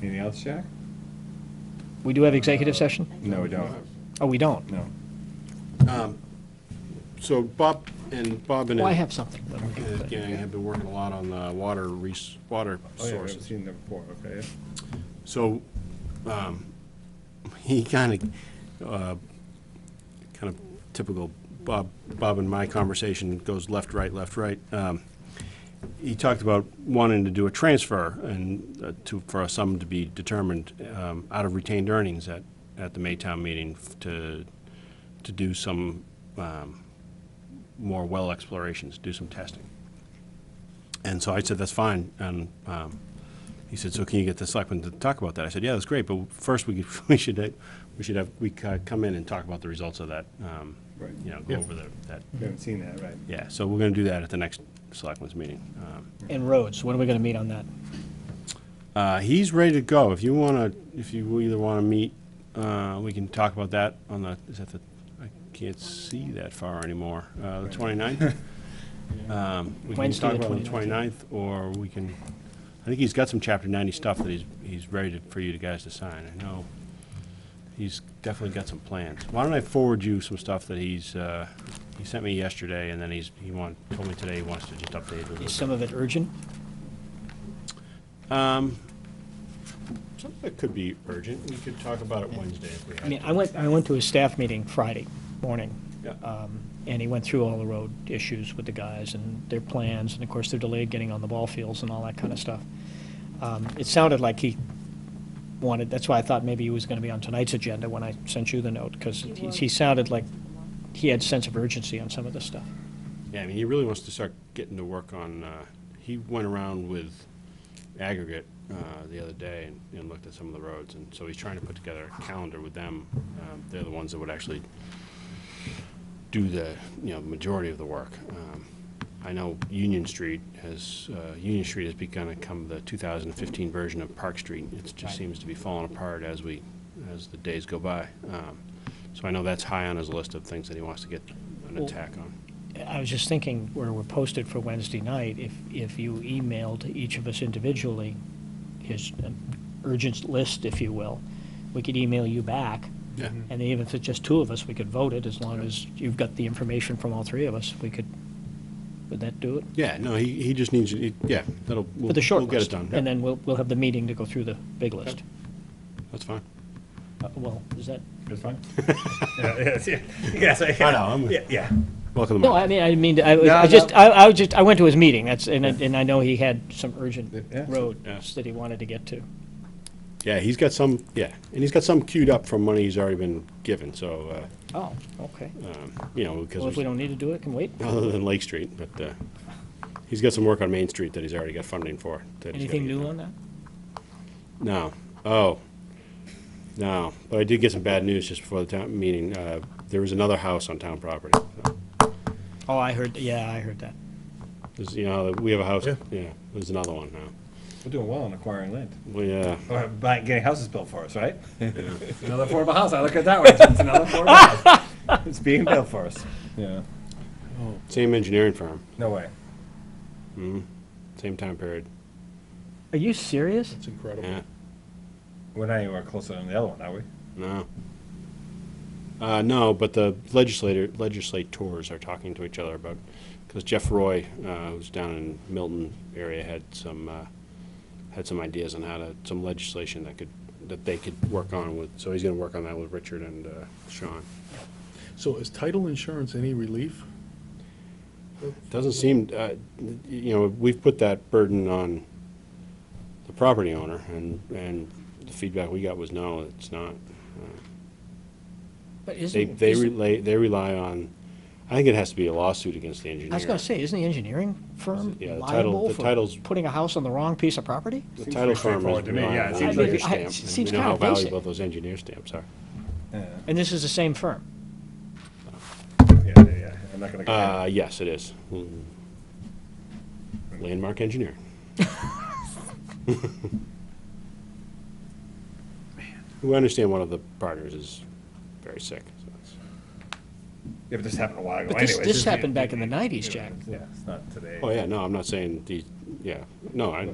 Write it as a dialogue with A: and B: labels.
A: Anything else, Jack?
B: We do have executive session?
A: No, we don't.
B: Oh, we don't?
A: No.
C: So Bob and Bob and
B: Well, Oh, I
C: his
B: have something. but-
C: his gang have been working a lot on the water res, water
A: Oh, yeah, I've
C: sources.
A: seen them before, okay. yeah.
C: So, um, he kind of, uh, kind of typical Bob, Bob and my conversation goes left, right, left, right. Um, he talked about wanting to do a transfer and uh, to, for a sum to be determined, um, out of retained earnings at, at the Maytown meeting f- to, to do some, um, more well explorations, do some testing. And so I said, that's fine, and, um, he said, "So can you get the selectmen to talk about that?" I said, "Yeah, that's great, but first we could, we should uh, we should have we ca- come in and talk about the results of that. Um,
A: Right.
C: You know, go
A: Yeah.
C: over the, that.
A: We haven't seen that, right?
C: Yeah. So we're going to do that at the next selectmen's meeting. Um,
B: And roads, when are we going to meet on that?
C: uh, he's ready to go. If you want to, if you either want to meet, uh, we can talk about that on the. Is that the? I can't see that far anymore. Uh, the 29th. Um, we
B: Wednesday,
C: can
B: the
C: talk about
B: 29th,
C: the 29th, or we can. I think he's got some Chapter 90 stuff that he's he's ready to, for you to guys to sign. I know he's definitely got some plans. Why don't I forward you some stuff that he's uh, he sent me yesterday, and then he's he want, told me today he wants to just update. a little
B: Is some of it urgent?
C: Something that could be urgent, we could talk about it Wednesday if we
B: I mean,
C: had.
B: I went, I went to a staff meeting Friday morning,
C: Yeah.
B: and he went through all the road issues with the guys and their plans, and of course, they're delayed getting on the ball fields and all that kind of stuff. Um, It sounded like he wanted, that's why I thought maybe he was going to be on tonight's agenda when I sent you the note, because he he sounded like he had sense of urgency on some of this stuff.
C: Yeah, I mean, he really wants to start getting to work on, uh, he went around with aggregate, uh, the other day and, and looked at some of the roads, and so he's trying to put together a calendar with them. Um, They're the ones that would actually do the, you know, majority of the work. Um, I know Union Street has, uh, Union Street has begun to come the 2015 version of Park Street. It just seems to be falling apart as we, as the days go by. Um, So I know that's high on his list of things that he wants to get an
B: Well-
C: attack on.
B: I was just thinking, where we're posted for Wednesday night, if, if you emailed each of us individually, his uh, urgent list, if you will, we could email you back,
C: Yeah.
B: and even if it's just two of us, we could vote it, as long as you've got the information from all three of us, we could, would that do it?
C: Yeah, no, he, he just needs, he- yeah, that'll, we'll
B: For the short
C: we'll
B: list?
C: get it done.
B: And then we'll, we'll have the meeting to go through the big list.
C: That's fine.
B: Uh, Well, is that,
A: That's fine? Yeah, Yes, yeah. Yes, I
C: I know, I'm-
A: Yeah, yeah.
C: Welcome to
B: no,
C: my,
B: I mean, I mean, I was-
A: No,
B: I
A: no.
B: just, I, I was just, I went to his meeting, that's, and, I- and I know he had some urgent
A: Yeah.
C: Yeah.
B: roads that he wanted to get to.
C: yeah, he's got some, yeah, and he's got some queued up from money he's already been given, so,
B: Oh, okay.
C: uh, you know,
B: Well,
C: because,
B: if we don't need to do it, can wait.
C: other than Lake Street, but, uh, he's got some work on Main Street that he's already got funding for. that he's gotta
B: Anything
C: get
B: new
C: done.
B: on that?
C: No. Oh. No. But I did get some bad news just before the town meeting. Uh, there was another house on town property. So,
B: Oh, I heard, yeah, I heard that.
C: There's, you know, we have a house,
A: Yeah.
C: yeah, there's another one now.
A: We're doing well on acquiring land.
C: We, uh,
A: Or buying, getting houses built for us, right? Another affordable house, I look at it that way, it's another affordable house. It's being built for us. Yeah,
C: same engineering firm,
A: no way.
C: same time period.
B: Are you serious?
D: It's incredible.
C: Yeah.
A: We're not anywhere closer than the other one, are we?
C: No. Uh, no, but the legislator, legislators are talking to each other about, because Jeff Roy, uh, who's down in Milton area, had some, uh, had some ideas on how to, some legislation that could, that they could work on with, so he's gonna work on that with Richard and, uh, Sean.
D: So is title insurance any relief?
C: Doesn't seem, uh, you know, we've put that burden on the property owner, and, and the feedback we got was, no, it's not.
B: But
C: They,
B: isn't,
C: they
B: isn't-
C: relay, they rely on, I think it has to be a lawsuit against the engineer.
B: I was gonna say, isn't the engineering firm
C: Yeah, the title-
B: liable
C: the
B: for
C: title's-
B: putting a house on the wrong piece of property?
C: The
A: Seems
C: title
A: pretty
C: firm
A: straightforward
C: is
A: to me, yeah, it
C: reliant on
A: seems
C: engineer
A: like-
B: I- it
C: stamp. and
B: seems
C: We know how
B: kinda basic.
C: valuable those engineer stamps are.
A: Yeah,
B: And this is the same firm.
A: yeah, yeah, yeah. I'm not gonna. go there.
C: Uh, yes, it is. Mm. Landmark engineer. We understand one of the partners is very sick. so it's-
A: Yeah, but this happened a while ago
B: But
A: anyways.
B: this, this happened back in the nineties, Jack.
A: Yeah, it's not today.
C: Oh, yeah, no, I'm not saying the, yeah, no, I,